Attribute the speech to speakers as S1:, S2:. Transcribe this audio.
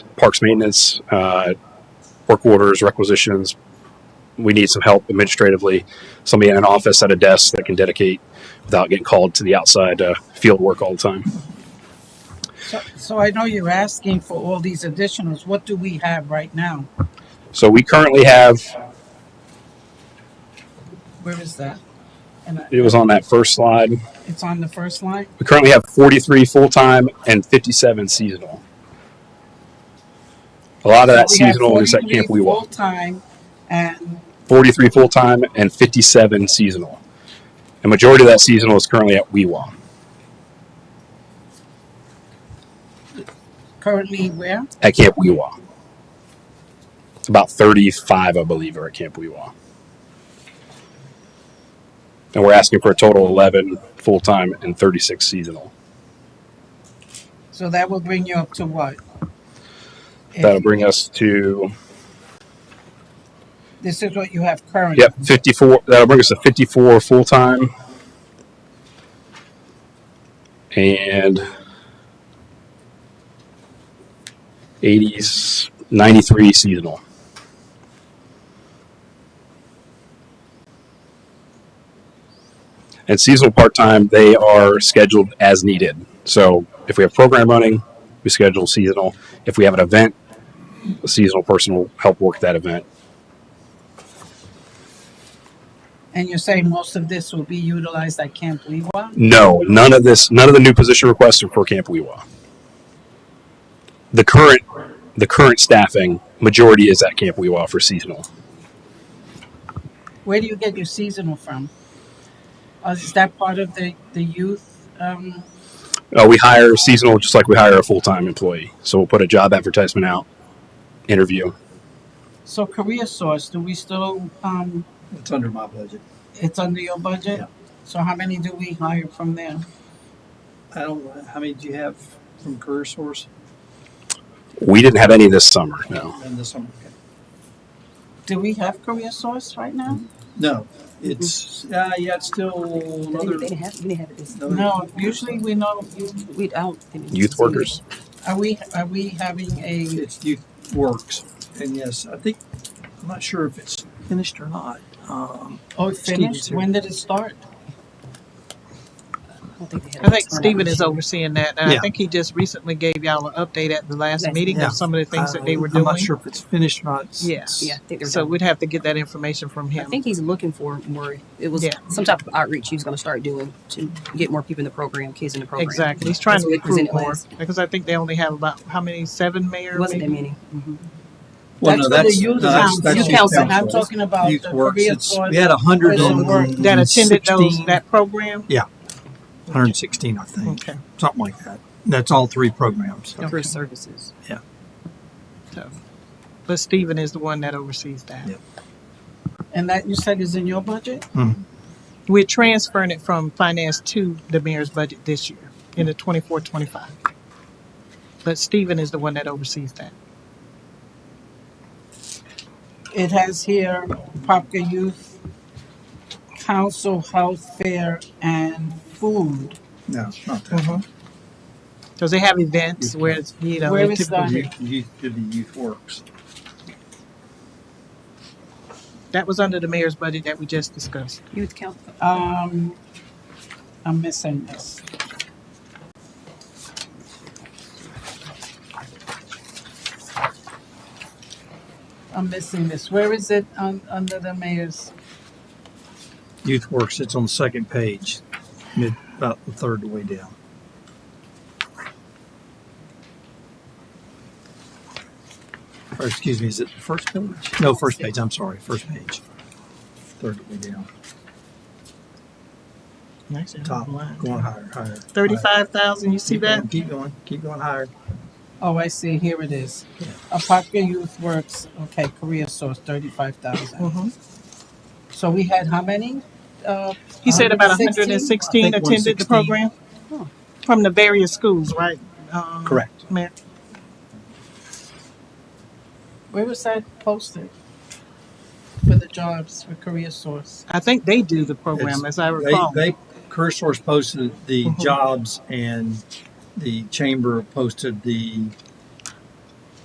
S1: parks maintenance, uh, work orders, requisitions. We need some help administratively, somebody in an office at a desk that can dedicate without getting called to the outside uh, field work all the time.
S2: So, so I know you're asking for all these additionals. What do we have right now?
S1: So we currently have,
S2: Where is that? And I-
S1: it was on that first slide,
S2: it's on the first line?
S1: we currently have 43 full time and 57 seasonal. A lot of that
S2: So we have
S1: seasonal is at
S2: 43
S1: Camp Weewalt.
S2: Full-time and
S1: 43 full time and 57 seasonal. The majority of that seasonal is currently at Weewalt.
S2: currently where?
S1: at Camp Weewa. About 35, I believe, are at Camp Weewa. And we're asking for a total of 11 full time and 36 seasonal.
S2: So that will bring you up to what? If
S1: That'll bring us to,
S2: This is what you have currently.
S1: yep, 54. That'll bring us to 54 full time. And 80s, 93 seasonal. And seasonal part time, they are scheduled as needed. So if we have program running, we schedule seasonal. If we have an event, a seasonal person will help work that event.
S2: And you're saying most of this will be utilized at Camp Leeward?
S1: No, none of this, none of the new position requests are for Camp Weewa. The current, the current staffing majority is at Camp Weewa for seasonal.
S2: Where do you get your seasonal from? Uh, Is that part of the, the youth? um,
S1: Uh, we hire seasonal just like we hire a full time employee. So we'll put a job advertisement out, interview.
S2: So Career Source, do we still, um,
S3: It's under my budget.
S2: it's under your budget?
S3: Yeah.
S2: So how many do we hire from there?
S3: I don't, how many do you have from Career Source
S1: We didn't have any this summer. No,
S3: in the summer?
S2: Do we have Career Source right now?
S3: No, it's, uh, yeah, it's still
S4: They
S3: another.
S4: didn't- they didn't have, we didn't have it this,
S3: another-
S2: No, usually we know,
S4: we don't. think it's-
S1: youth workers.
S2: are we, are we having a,
S3: It's youth works. And yes, I think, I'm not sure if it's finished or not. Um,
S2: oh, it finished? When did it start?
S4: I don't think they had
S5: I
S4: it
S5: think
S4: this time.
S5: Stephen is overseeing that, and I
S3: Yeah.
S5: think he just recently gave y'all an update at the last
S4: Last-
S5: meeting
S3: yeah.
S5: of some of the things that they were
S3: Uh, I'm not
S5: doing.
S3: sure if it's finished or not. It's-
S5: Yeah.
S4: Yeah, I think they're
S5: So
S4: done.
S5: we'd have to get that information from
S4: I
S5: him.
S4: think he's looking for more, it was
S5: Yeah.
S4: some type of outreach he was gonna start doing to get more people in the program, kids in the program.
S5: Exactly. He's trying
S4: That's
S5: to
S4: what he
S5: recruit
S4: presented
S5: more,
S4: last.
S5: because I think they only have about, how many, seven mayor?
S4: It wasn't that
S5: maybe?
S4: many. Mhm.
S3: Well,
S2: That's
S3: no,
S2: for the
S3: that's, no,
S2: youth
S3: that's,
S2: council.
S3: that's
S4: Youth
S3: youth
S4: council.
S2: I'm
S3: council.
S2: talking about the
S3: Youth works.
S2: Career
S3: It's,
S2: Source.
S3: we had a hundred
S2: Prison work
S3: and
S5: That attended those,
S3: 16
S5: that program?
S3: Hundred and sixteen, I think,
S5: Okay.
S3: something like that. That's all three programs.
S4: For his services.
S5: So, But Stephen is the one that oversees that.
S3: Yeah.
S2: and that you said is in your budget?
S3: Mhm.
S5: We're transferring it from finance to the mayor's budget this year, in the twenty-four, twenty-five. But Stephen is the one that oversees that.
S2: It has here Popka Youth Council, Health Fair, and Food.
S3: No, it's not that.
S5: Mm-hmm. Because they have events where it's, you know,
S2: Where
S5: they
S2: is
S5: typically-
S2: that?
S3: Youth, youth, did the youth works.
S5: that was under the mayor's budget that we just discussed.
S4: Youth count,
S2: Um, I'm missing this. I'm missing this. Where is it on, under the mayor's?
S3: Youth Works, it's on the second page, mid, about the third way down. Or excuse me, is it the first page? No, first page, I'm sorry, first page. Third way down, top, going higher, higher.
S5: Thirty-five thousand,
S3: higher.
S5: you see
S3: Keep
S5: that?
S3: going, Keep going, keep going higher.
S2: Oh, I see. Here it is. A Popka Youth Works, okay, career source, thirty-five thousand.
S5: Mhm.
S2: So we had how many? Uh,
S5: He said about hundred
S2: 116?
S5: and sixteen
S3: I think
S5: attended the
S3: 116.
S5: program
S4: Oh.
S5: from the various schools, right? Um,
S3: Correct.
S5: Mayor,
S2: Where was that posted? For the jobs for career source?
S5: I think they do the program,
S3: It's-
S5: as I
S3: They,
S5: recall.
S3: they, Career Source posted the
S5: Mhm.
S3: jobs and the chamber posted the